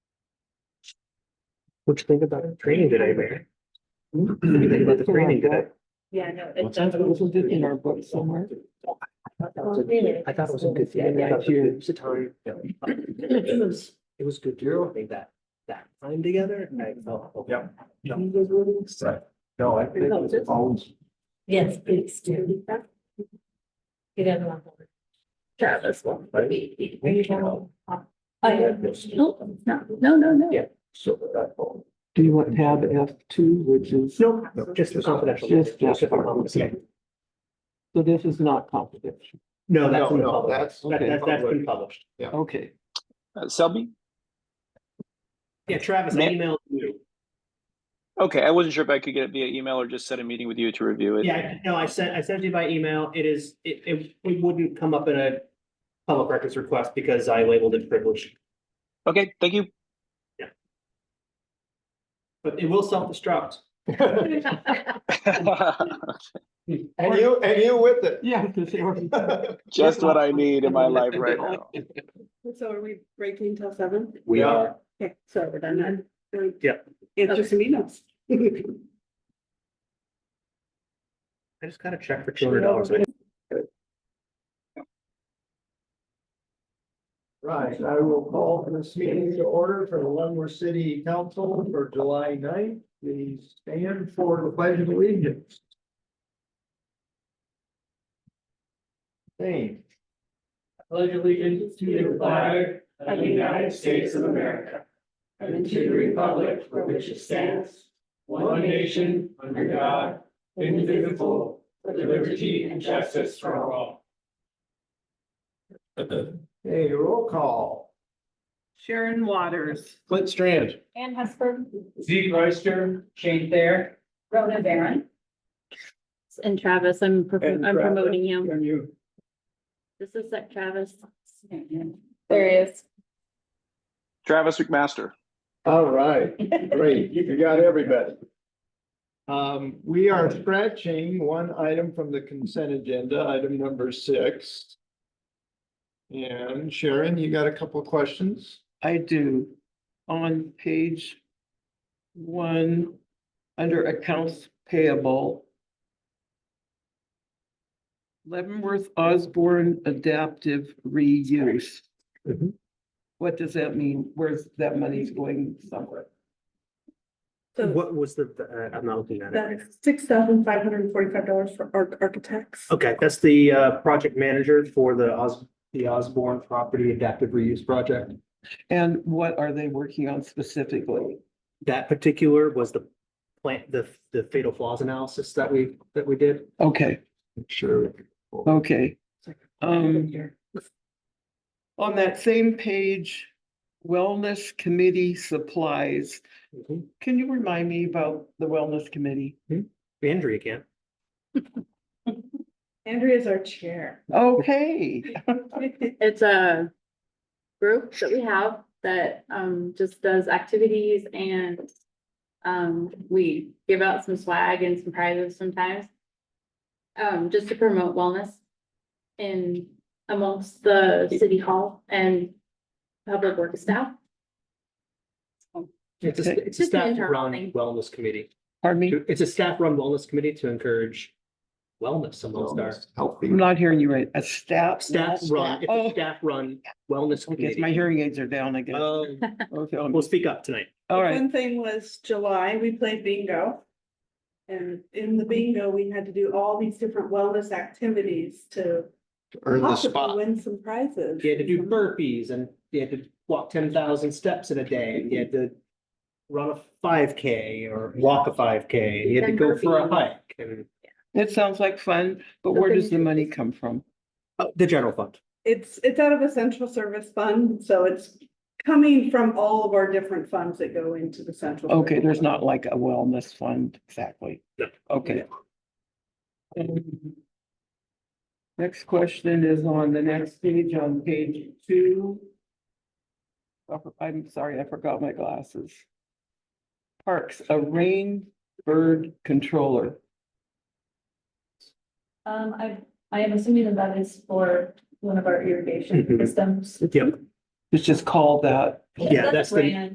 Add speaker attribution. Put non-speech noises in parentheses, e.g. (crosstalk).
Speaker 1: What you think about the training today, Mayor? What do you think about the training today?
Speaker 2: Yeah, no.
Speaker 3: What's that? It wasn't in our book somewhere.
Speaker 1: I thought it was a good thing.
Speaker 3: Yeah,
Speaker 1: I thought
Speaker 3: yeah.
Speaker 1: It was a time. It was, it was good to make that, that time together. and I felt.
Speaker 4: Yeah. Yeah.
Speaker 1: You guys really excited.
Speaker 4: Right. No, I think it's always,
Speaker 2: Yes, it's do. You don't want. Travis will.
Speaker 4: Right.
Speaker 2: I have, no, no, no, no, no.
Speaker 4: so that phone.
Speaker 3: Do you want tab F two, which is, so
Speaker 1: No, just the confidential.
Speaker 3: Just-
Speaker 1: Just if I'm on the same.
Speaker 3: this is not confidential.
Speaker 1: No, that's
Speaker 4: No,
Speaker 1: been
Speaker 4: no,
Speaker 1: published.
Speaker 4: that's.
Speaker 1: That, that's, that's been published.
Speaker 3: Okay,
Speaker 5: Uh, Selby?
Speaker 1: Yeah, Travis, I
Speaker 5: Ma-
Speaker 1: emailed you.
Speaker 5: Okay, I wasn't sure if I could get it via email or just set a meeting with you to review it.
Speaker 1: Yeah, I- no, I sent, I sent it to you by email. It is, it, it, it wouldn't come up in a public records request because I labeled it privileged.
Speaker 5: Okay,
Speaker 1: (laughs)
Speaker 5: thank you. (laughs)
Speaker 1: But it will self-destruct.
Speaker 4: And you, and you with it.
Speaker 3: yeah, because they already-
Speaker 5: Just what I need in my life right now.
Speaker 6: So are we breaking till seven?
Speaker 4: We are.
Speaker 6: Okay, so we're done then.
Speaker 1: Yeah.
Speaker 6: Answer some emails.
Speaker 1: I just gotta check for two hundred dollars.
Speaker 4: Right, I will call this meeting to order for the Leavenworth City Council for July 9th. Please stand for the pledge of allegiance. Thank.
Speaker 7: pledge allegiance to the flag of the United States of America and to the republic for which it stands, one nation, under God, indivisible, with liberty and justice for all.
Speaker 4: Hey, roll call.
Speaker 6: Sharon Waters.
Speaker 4: Clint Strand.
Speaker 2: Ann Hesper,
Speaker 7: Zeke Reister, Shane Thayer.
Speaker 2: Rhoda Baron.
Speaker 8: And Travis, I'm, pro-
Speaker 7: And
Speaker 8: I'm
Speaker 7: Travis.
Speaker 8: promoting you.
Speaker 7: And you.
Speaker 8: This is that Travis.
Speaker 2: There he is.
Speaker 5: Travis McMaster.
Speaker 4: All right, great. You got everybody. Um, we are scratching one item from the consent agenda, item number six. And Sharon, you got a couple of questions?
Speaker 3: I do. On page one, under accounts payable. Leavenworth Osborne Adaptive Reuse.
Speaker 1: Mhm.
Speaker 3: What does that mean? Where's that money's going somewhere?
Speaker 6: So
Speaker 1: What was the, uh, I'm not looking at it. right now.
Speaker 6: that's six thousand five hundred and forty-five dollars for arch- architects.
Speaker 1: Okay, that's the, uh, project manager for the Os, the Osborne Property Adaptive Reuse Project.
Speaker 3: And what are they working on specifically?
Speaker 1: That particular was the plant, the, the fatal flaws analysis that we, that we did.
Speaker 3: Okay.
Speaker 4: Sure.
Speaker 3: Okay. Um. On that same page, Wellness Committee Supplies.
Speaker 1: Mm-hmm.
Speaker 3: Can you remind me about the Wellness Committee?
Speaker 1: Andrea can.
Speaker 6: Andrea's our chair. (laughs)
Speaker 3: Okay,
Speaker 8: It's a group that we have that um just does activities and um we give out some swag and some prizes sometimes. Um, just to promote wellness in amongst the city hall and public work staff.
Speaker 1: It's
Speaker 3: Okay.
Speaker 1: a, it's a
Speaker 8: Just an
Speaker 1: staff
Speaker 8: internal
Speaker 1: run
Speaker 8: thing.
Speaker 1: wellness committee.
Speaker 3: pardon me,
Speaker 1: It's a staff run wellness committee to encourage wellness amongst our
Speaker 3: I'm
Speaker 4: Healthy.
Speaker 3: not hearing you right. A staff.
Speaker 1: staff run, it's
Speaker 3: Oh,
Speaker 1: a staff run wellness
Speaker 3: I guess
Speaker 1: committee.
Speaker 3: my hearing aids are down, I guess.
Speaker 1: Oh,
Speaker 3: Okay, um,
Speaker 1: we'll speak up tonight.
Speaker 3: all right.
Speaker 6: One thing was July, we played bingo. And in the bingo, we had to do all these different wellness activities to
Speaker 4: Earn the
Speaker 6: possibly
Speaker 4: spot.
Speaker 6: win some prizes.
Speaker 1: You had to do burpees and you had to walk ten thousand steps in a day. You had to run a five K or walk a five K. You had to go for a hike and
Speaker 3: It sounds like fun, but where does the money come from?
Speaker 1: uh, the general fund.
Speaker 6: It's, it's out of a central service fund, so it's coming from all of our different funds that go into the central.
Speaker 3: Okay,
Speaker 6: service
Speaker 3: there's
Speaker 6: fund.
Speaker 3: not like a wellness fund exactly.
Speaker 1: No.
Speaker 3: Okay. Um, Next question is on the next page, on page two. I for- I'm sorry, I forgot my glasses. Parks, a rain bird controller.
Speaker 2: Um, I, I am assuming that that is for one of our irrigation
Speaker 1: Mhm.
Speaker 2: systems.
Speaker 1: Yep.
Speaker 3: It's just called that.
Speaker 1: Yeah, that's the-
Speaker 2: Brand.